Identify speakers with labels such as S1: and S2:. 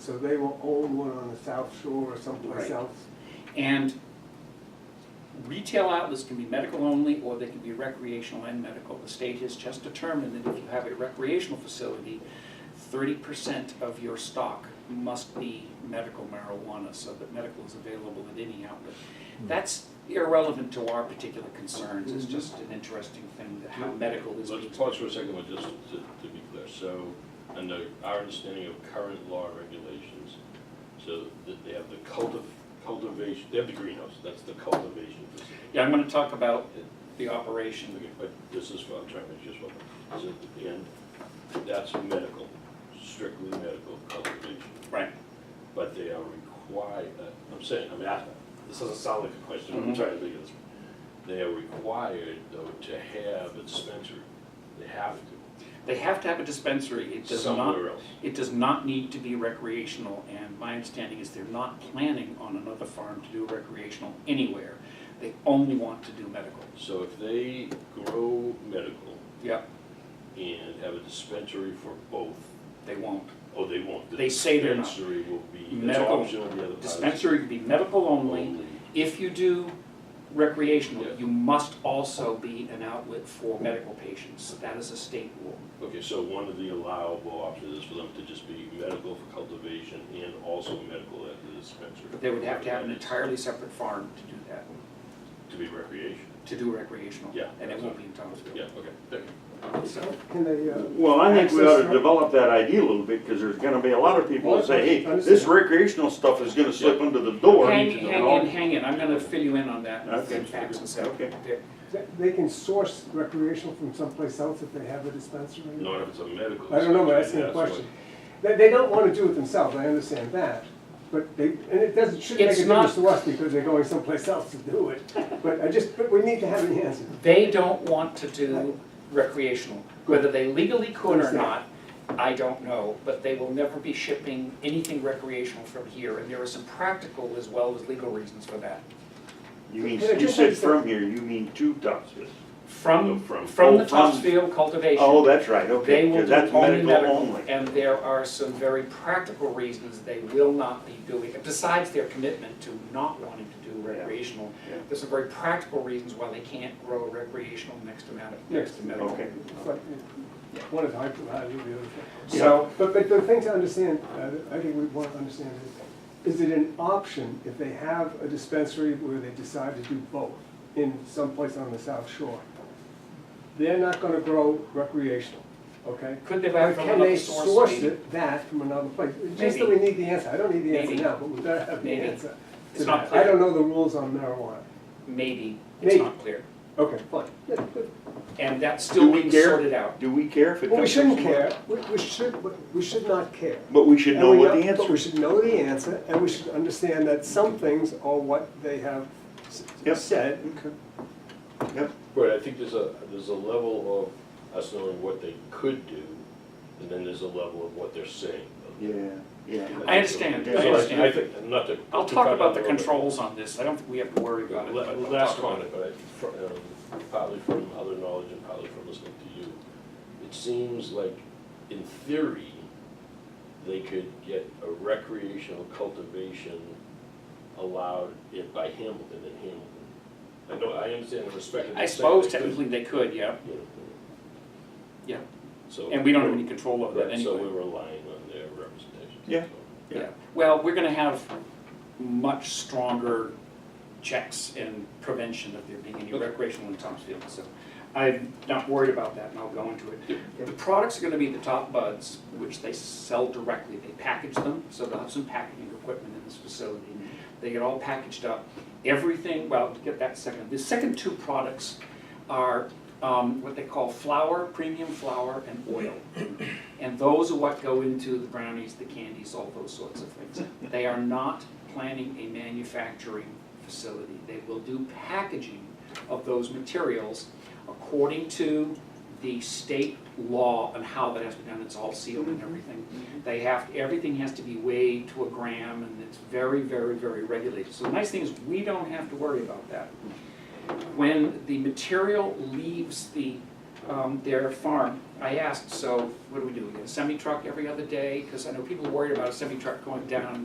S1: So they will own one on the South Shore or someplace
S2: Right.
S1: else.
S2: And retail outlets can be medical only, or they can be recreational and medical. The state has just determined that if you have a recreational facility, thirty percent of your stock must be medical marijuana, so that medical is available at any outlet. That's irrelevant to our particular concerns, it's just an interesting thing, that how medical is being.
S3: Hmm. Let's pause for a second, but just to, to be clear, so, under our understanding of current law and regulations, so that they have the cultiv- cultivation, they have the greenhouse, that's the cultivation facility.
S2: Yeah, I'm gonna talk about the operation,
S3: Okay, But this is what I'm trying to just, what, is at the end, that's medical, strictly medical cultivation,
S2: right,
S3: but they are required, uh, I'm saying, I'm asking, this doesn't sound like a question, I'm
S2: Mhm.
S3: trying to think of this. They are required, though, to have a dispensary, they have to,
S2: they have to have a dispensary, it does not
S3: somewhere else.
S2: It does not need to be recreational, and my understanding is they're not planning on another farm to do recreational anywhere. They only want to do medical.
S3: So if they grow medical
S2: Yep.
S3: and have a dispensary for both,
S2: They won't.
S3: oh, they won't. the
S2: They say they're not.
S3: Dispensary will be, that's
S2: Medical
S3: optional, the other part is
S2: Dispensary could be medical only.
S3: only.
S2: If you do recreational,
S3: Yeah.
S2: you must also be an outlet for medical patients. That is a state rule.
S3: Okay, so one of the allowable options is for them to just be medical for cultivation and also medical at the dispensary.
S2: But they would have to have an
S3: That is
S2: entirely separate farm to do that,
S3: To be recreation,
S2: to do recreational.
S3: Yeah.
S2: And it won't be in Thomasville.
S3: yeah, okay, thank you.
S2: So,
S1: Can they, uh,
S4: Well, I think we ought
S1: Access,
S4: to
S1: right?
S4: develop that idea a little bit, because there's gonna be a lot of people that say, hey, this recreational stuff is gonna slip under the door.
S2: hang,
S4: and all."
S2: hang in, hang in. I'm gonna fill you in on that,
S4: Okay.
S2: and facts and stuff.
S4: Okay.
S2: Yeah.
S1: th- they can source recreational from someplace else if they have a dispensary?
S3: Not if it's a medical.
S1: I don't know, but
S3: dispensary,
S1: asking a
S3: that's what-
S1: question. They, they don't want to do it themselves, I understand that. But they, and it doesn't, shouldn't make
S2: It's
S1: a difference
S2: not-
S1: to us because they're going someplace else to do it. But I just, but we need to have an answer.
S2: They don't want to do recreational. Whether they legally could or not, I don't know, but they will never be shipping anything recreational from here. And there are some practical as well as legal reasons for that.
S4: You mean, you said from here, you mean to Topsfield.
S2: From,
S3: No, from-
S2: from the
S4: oh, from-
S2: Topsfield
S4: Oh,
S2: cultivation,
S4: that's right,
S2: they
S4: okay,
S2: will
S4: because
S2: do
S4: that's
S2: only
S4: medical
S2: medical.
S4: only.
S2: And there are some very practical reasons they will not be doing, besides their commitment to not wanting to do recreational.
S4: yeah.
S2: There's some very practical reasons why they can't grow recreational next to medical, next to medical.
S4: Okay.
S1: It's like, uh, One is hard to, how do the other thing?
S2: So,
S1: But, but the thing to understand, uh, I think we want to understand is, is it an option if they have a dispensary where they decide to do both in some place on the South Shore? They're not gonna grow recreational, okay?
S2: Could they buy
S1: But
S2: it from
S1: can they
S2: another source?
S1: source
S2: maybe?
S1: it, that from another place? It's Just that we need the answer, I don't need the answer
S2: Maybe.
S1: now, but we better have the
S2: Maybe.
S1: answer to
S2: It's not
S1: that. I
S2: clear.
S1: don't know the rules on marijuana.
S2: Maybe, it's
S1: Maybe.
S2: not clear.
S1: Okay, fine. Good, good.
S2: And that's
S4: Do
S2: still
S4: we
S2: being
S4: care?
S2: sorted out.
S4: Do we care if it comes?
S1: Well, we shouldn't
S4: from-
S1: care, we, we should, we should not care.
S4: But we should
S1: And
S4: know
S1: we
S4: what the
S1: But we
S4: answer is.
S1: should know the answer, and we should understand that some things are what they have s-
S4: Yep.
S1: said.
S4: Okay. Yep,
S3: Right, I think there's a, there's a level of us knowing what they could do, and then there's a level of what they're saying.
S4: yeah, yeah.
S2: I understand, I
S3: So
S2: understand.
S3: I think, not to.
S2: I'll
S3: to
S2: talk
S3: cut
S2: about
S3: on
S2: the
S3: a little bit.
S2: controls on this, I don't think we have to worry about it. but
S3: La-
S2: I'll
S3: Last
S2: talk about
S3: comment, but I- fr- um, partly from other knowledge and partly from listening to you, it seems like, in theory, they could get a recreational cultivation allowed in- by Hamilton in Hamilton. I know, I understand and respect
S2: it.
S3: it.
S2: I suppose technically they could, yeah, Yeah.
S3: So.
S2: and we don't have any control over that
S3: Right, so
S2: anyway.
S3: we're relying on their representation.
S4: Yeah. Yeah.
S2: Yeah, well, we're gonna have much stronger checks and prevention of there being any
S3: Okay.
S2: recreational in Thomasville, so I'm not worried about that, and I'll go into it. The products are gonna be the top buds, which they sell directly, they package them, so they'll have some packaging equipment in this facility. They get all packaged up, everything, well, to get that second, the second two products are um, what they call flour, premium flour, and oil. And those are what go into the brownies, the candies, all those sorts of things. They are not planning a manufacturing facility. They will do packaging of those materials according to the state law on how that has to be done. It's all sealed and everything. They have, everything has to be weighed to a gram, and it's very, very, very regulated. So the nice thing is, we don't have to worry about that. When the material leaves the um, their farm. I asked, so what do we do, we get a semi-truck every other day? Because I know people are worried about a semi-truck going down